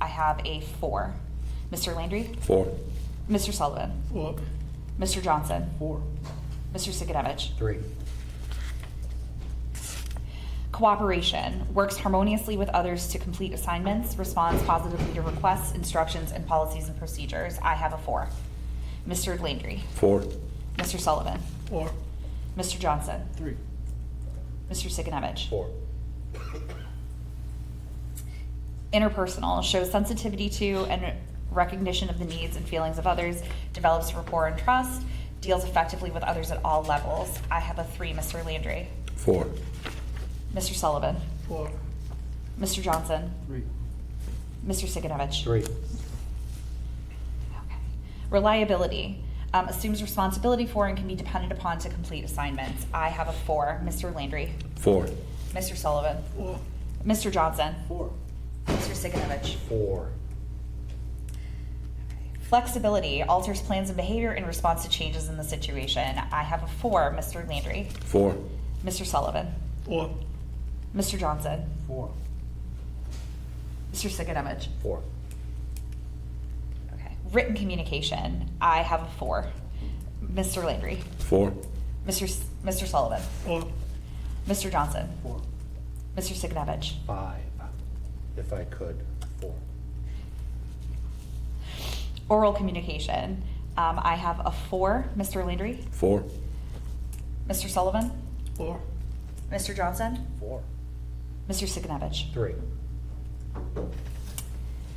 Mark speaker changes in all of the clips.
Speaker 1: have a four. Mr. Landry?
Speaker 2: Four.
Speaker 1: Mr. Sullivan?
Speaker 3: Four.
Speaker 1: Mr. Johnson?
Speaker 3: Four.
Speaker 1: Mr. Sigenovich?
Speaker 4: Three.
Speaker 1: Cooperation works harmoniously with others to complete assignments, responds positively to requests, instructions, and policies and procedures. I have a four. Mr. Landry,
Speaker 2: Four.
Speaker 1: Mr. Sullivan,
Speaker 3: Four.
Speaker 1: Mr. Johnson,
Speaker 3: Three.
Speaker 1: Mr. Sigenovich.
Speaker 4: Four.
Speaker 1: Interpersonal shows sensitivity to and recognition of the needs and feelings of others, develops rapport and trust, deals effectively with others at all levels. I have a three, Mr. Landry,
Speaker 2: Four.
Speaker 1: Mr. Sullivan,
Speaker 3: Four.
Speaker 1: Mr. Johnson,
Speaker 3: Three.
Speaker 1: Mr. Sigenovich.
Speaker 4: Three.
Speaker 1: Okay. Reliability um, assumes responsibility for and can be depended upon to complete assignments. I have a four. Mr. Landry,
Speaker 2: Four.
Speaker 1: Mr. Sullivan,
Speaker 3: Four.
Speaker 1: Mr. Johnson,
Speaker 3: Four.
Speaker 1: Mr. Siganovich.
Speaker 4: Four.
Speaker 1: Flexibility alters plans and behavior in response to changes in the situation. I have a four. Mr. Landry,
Speaker 2: Four.
Speaker 1: Mr. Sullivan,
Speaker 3: Four.
Speaker 1: Mr. Johnson,
Speaker 4: Four.
Speaker 1: Mr. Siganovich.
Speaker 4: Four.
Speaker 1: Okay. Written communication. I have a four. Mr. Landry,
Speaker 2: Four.
Speaker 1: Mr. S- Mr. Sullivan,
Speaker 3: Four.
Speaker 1: Mr. Johnson,
Speaker 4: Four.
Speaker 1: Mr. Siganovich.
Speaker 4: Five, if I could. Four.
Speaker 1: Oral communication. Um, I have a four, Mr. Landry,
Speaker 2: Four.
Speaker 1: Mr. Sullivan,
Speaker 3: Four.
Speaker 1: Mr. Johnson,
Speaker 4: Four.
Speaker 1: Mr. Siganovich.
Speaker 4: Three.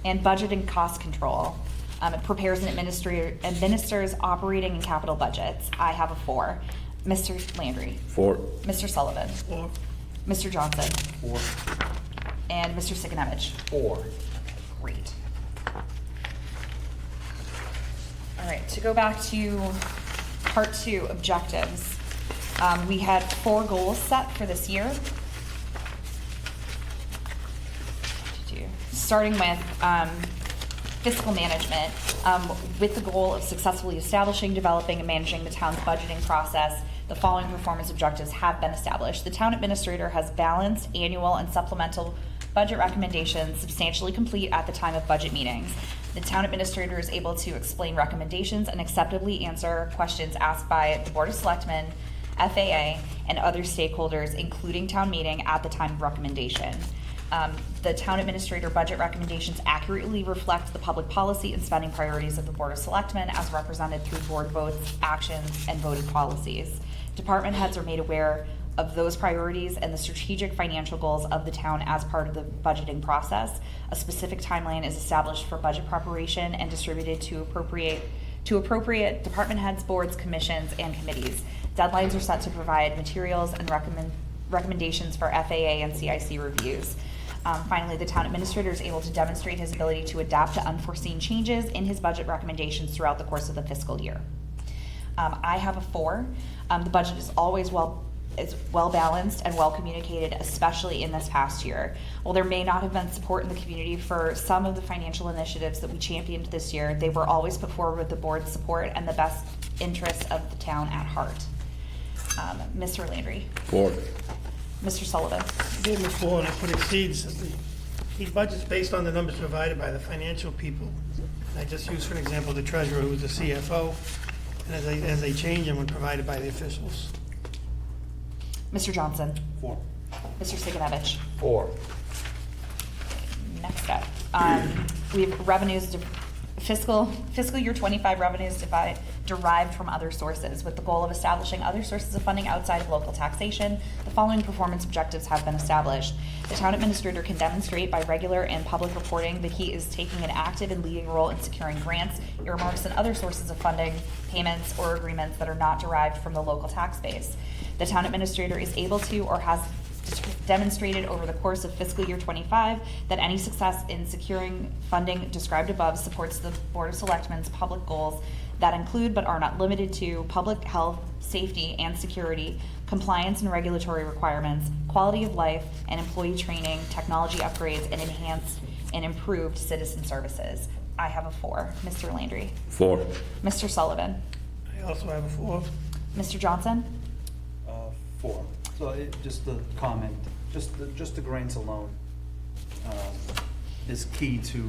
Speaker 1: And budget and cost control. Um, it prepares and administer, administers operating and capital budgets. I have a four, Mr. Landry,
Speaker 2: Four.
Speaker 1: Mr. Sullivan,
Speaker 3: Four.
Speaker 1: Mr. Johnson,
Speaker 4: Four.
Speaker 1: and Mr. Siganovich.
Speaker 4: Four.
Speaker 1: Great. All right, to go back to part two, objectives. Um, we had four goals set for this year. Starting with, um, fiscal management, um, with the goal of successfully establishing, developing, and managing the town's budgeting process. The following performance objectives have been established. The town administrator has balanced annual and supplemental budget recommendations substantially complete at the time of budget meetings. The town administrator is able to explain recommendations and acceptably answer questions asked by the Board of Selectmen, FAA, and other stakeholders, including town meeting, at the time of recommendation. Um, The town administrator budget recommendations accurately reflect the public policy and spending priorities of the Board of Selectmen as represented through board votes, actions, and voted policies. Department heads are made aware of those priorities and the strategic financial goals of the town as part of the budgeting process. A specific timeline is established for budget preparation and distributed to appropriate, to appropriate department heads, boards, commissions, and committees. Deadlines are set to provide materials and recommend, recommendations for FAA and CIC reviews. Um, finally, the town administrator is able to demonstrate his ability to adapt to unforeseen changes in his budget recommendations throughout the course of the fiscal year. Um, I have a four. Um, the budget is always well is well balanced and well communicated, especially in this past year. While there may not have been support in the community for some of the financial initiatives that we championed this year, they were always put forward with the board's support and the best interests of the town at heart. Um, Mr. Landry,
Speaker 2: Four.
Speaker 1: Mr. Sullivan,
Speaker 3: Gave him a four, and I put exceeds. the- He budgets based on the numbers provided by the financial people. And I just used, for example, the treasurer, who was the CFO, and as they, as they change them, when provided by the officials.
Speaker 1: Mr. Johnson,
Speaker 4: Four.
Speaker 1: Mr. Siganovich.
Speaker 4: Four.
Speaker 1: Next up, um, we have revenues, de- fiscal, fiscal year twenty-five revenues devi- derived from other sources with the goal of establishing other sources of funding outside of local taxation. The following performance objectives have been established. The town administrator can demonstrate by regular and public reporting that he is taking an active and leading role in securing grants, earmarks, and other sources of funding, payments, or agreements that are not derived from the local tax base. The town administrator is able to or has demonstrated over the course of fiscal year '25 that any success in securing funding described above supports the Board of Selectmen's public goals that include but are not limited to public health, safety, and security, compliance and regulatory requirements, quality of life, and employee training, technology upgrades, and enhanced and improved citizen services. I have a four. Mr. Landry.
Speaker 2: Four.
Speaker 1: Mr. Sullivan.
Speaker 3: I also have a four.
Speaker 1: Mr. Johnson.
Speaker 5: Uh, Four. So it, just the comment, just, the- just the grants alone um, is key to